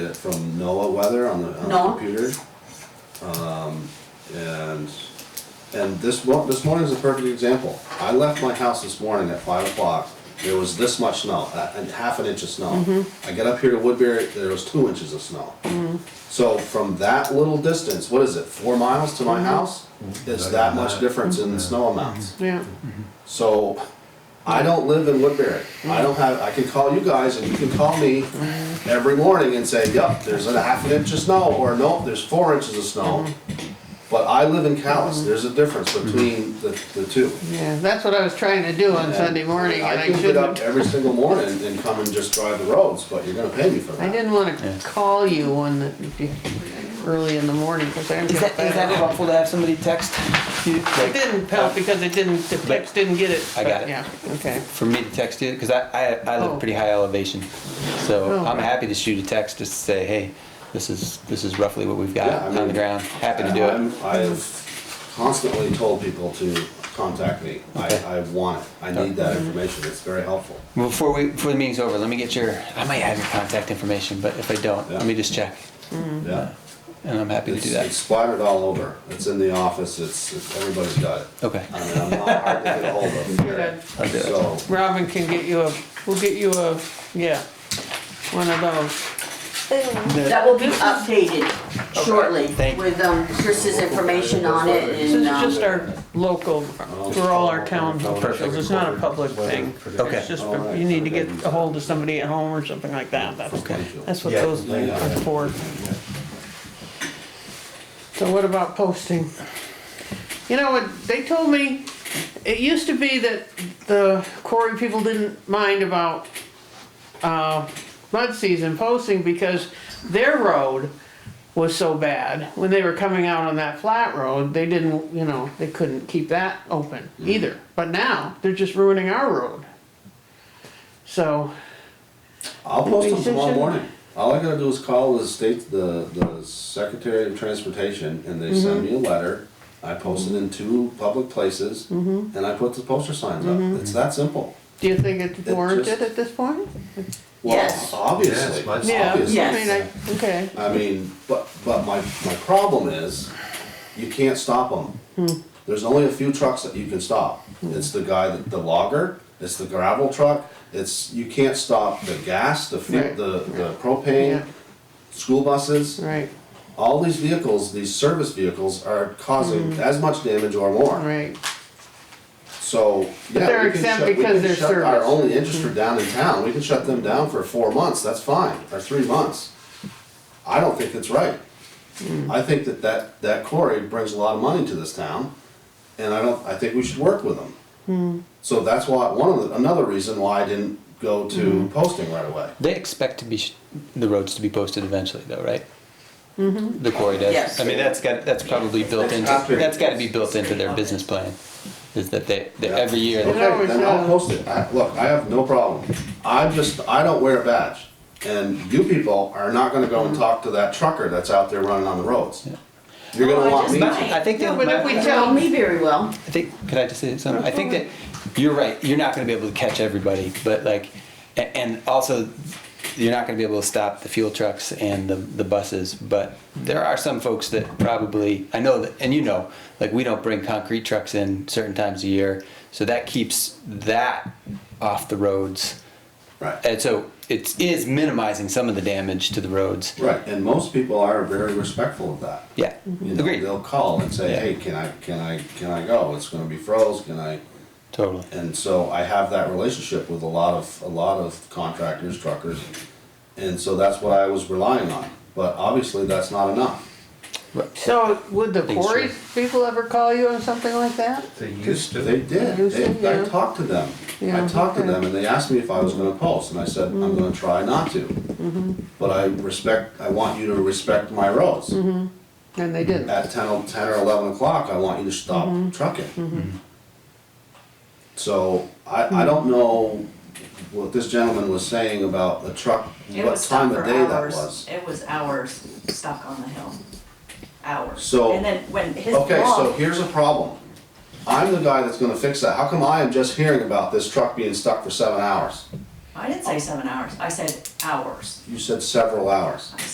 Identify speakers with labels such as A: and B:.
A: It's from NOAA weather on the, on the
B: NOAA.
A: computer. Um, and, and this mo- this morning is a perfect example. I left my house this morning at five o'clock, there was this much snow, a- and half an inch of snow. I get up here to Woodbury, there was two inches of snow. So from that little distance, what is it, four miles to my house? It's that much difference in the snow amounts.
B: Yeah,
A: So, I don't live in Woodbury. I don't have, I can call you guys and you can call me every morning and say, yup, there's a half an inch of snow, or nope, there's four inches of snow.
B: Mm-hmm.
A: But I live in Callis, there's a difference between the, the two.
B: yeah, that's what I was trying to do on
A: And
B: Sunday morning, and I
A: can get up
B: shouldn't,
A: every single morning and come and just drive the roads, but you're gonna pay me for
B: I
A: that.
B: didn't wanna call you on the, early in the morning, cause I'm
C: Is that,
B: just
C: is that
B: bad.
C: helpful to have somebody text you?
B: It
C: Like,
B: didn't help because it didn't, the text didn't get it.
C: I got
B: but
C: it.
B: Yeah, okay.
C: for me to text you? Because I, I, I live
B: Oh.
C: pretty high elevation. So
B: Oh,
C: I'm
B: right.
C: happy to shoot a text just to say, hey, this is, this is roughly what we've got
A: Yeah, I
C: on
A: mean,
C: the ground. Happy to do it.
A: I'm- I've constantly told people to contact me. I,
C: Okay.
A: I want it. I need that information. It's very helpful.
C: Before we before the meeting's over, let me get your. I might have your contact information, but if I don't,
A: Yeah.
C: let me just check.
B: Mm-hmm.
A: Yeah.
C: And I'm happy to
A: It's,
C: do
A: it's
C: that.
A: splattered all over. It's in the office. It's, it's everybody's got it.
C: Okay.
A: I mean, I'm not hard to get a hold of.
B: Good.
C: I'll do it.
A: So,
B: Robin can get you a, we'll get you a, yeah, one of those.
D: That will be updated shortly
C: thank you.
D: with um, Chris's information on it
B: This is
D: and,
B: just
D: um,
B: our local, for all our town officials, it's not a public thing.
C: Okay.
B: It's just, for- you need to get a hold of somebody at home or something like that, that's,
C: Okay.
B: that's what those are for. So what about posting? You know what, they told me, it used to be that the quarry people didn't mind about, uh, mud season posting because their road was so bad, when they were coming out on that flat road, they didn't, you know, they couldn't keep that open either. But now, they're just ruining our road. So,
A: I'll post them tomorrow
B: Decision.
A: morning. All I gotta do is call the state, the, the Secretary of Transportation, and
B: Mm-hmm.
A: they send me a letter. I post it in two public places,
B: Mm-hmm.
A: and I put the poster signs up. It's that simple.
B: do you think it's
A: just-
B: warranted at this point?
A: Well,
D: Yes.
A: Obviously,
B: Yeah,
A: obviously.
B: I
D: Yes.
B: mean, I, okay,
A: I mean, but, but my, my problem is, you can't stop
B: Hmm.
A: them. There's only a few trucks that you can stop. It's the guy, that the logger, it's the gravel truck, it's, you can't stop the gas, the fuel,
B: Right.
A: the, the
B: Yeah.
A: propane, school buses.
B: right,
A: All these vehicles, these service vehicles are causing
B: Hmm.
A: as much damage or more.
B: right,
A: So, yeah,
B: they're
A: we can
B: exempt
A: shut, we
B: because
A: can
B: they're
A: shut our
B: service.
A: only industry down in town, we can shut them down for four months, that's fine, or three months. I don't think that's right.
B: Hmm.
A: I think that that, that quarry brings a lot of money to this town, and I don't, I think we should work with them.
B: Hmm.
A: So that's why, one of the, another reason why I didn't go
B: Hmm.
A: to posting right away.
C: They expect to be sh- the roads to be posted eventually, though, right? Mm-hmm. The quarry does.
D: Yes.
C: I mean, that's got that's probably built
A: That's
C: into
A: after-
C: that's got to be built into their business plan. Is that they, they
A: Yeah.
C: every year they-
A: Okay, then I'll
B: Yeah.
A: post it. I- Look, I have no problem. I'm just, I don't wear a badge. And you people are not gonna go and talk to that trucker that's out there running on the roads. You're
D: Oh,
A: gonna
D: I
A: want
D: just
A: me
D: might.
A: to.
C: I think
B: No,
C: that
B: but
C: my-
B: if we
D: you
B: tell-
D: know me very well.
C: I think, could I just say something? I think that you're right. You're not going to be able to catch everybody, but like, a- and also, you're not going to be able to stop the fuel trucks and the, the buses. But there are some folks that probably I know that, and you know, like we don't bring concrete trucks in certain times a year, so that keeps that off the roads,
A: Right,
C: and so it is minimizing some of the damage to the roads.
A: right, and most people are very respectful of that.
C: Yeah,
A: You know,
C: agreed.
A: they'll call and say,
C: Yeah.
A: hey, can I, can I, can I go? It's gonna be froze, can I?
C: Totally.
A: And so I have that relationship with a lot of, a lot of contractors, truckers. And so that's what I was relying on, but obviously that's not enough.
B: so would the
C: Thanks,
B: quarry
C: Ray.
B: people ever call you on something like that?
E: They used to.
A: They did.
B: You said,
A: They- I
B: yeah.
A: talked to them. I
B: Yeah,
A: talked to
B: okay. Mm-hmm.
A: them and they asked me if I was gonna post and I said, I'm gonna try not to. But I respect, I want you to respect my roads.
B: Mm-hmm. And they didn't,
A: At ten o- 10 or eleven o'clock, I want you to stop
B: Mm-hmm.
A: trucking. So
B: Mm-hmm.
A: I, I don't know what this gentleman was saying about the truck,
F: It
A: what
F: was stuck
A: time
F: for
A: of day that
F: hours.
A: was.
F: It was hours stuck on the hill, hours.
A: So-
F: And then when his
A: Okay, so
F: blog,
A: here's a problem. I'm the guy that's gonna fix that. How come I am just hearing about this truck being stuck for seven hours?
F: I didn't say seven hours, I said hours.
A: You said several hours.
F: I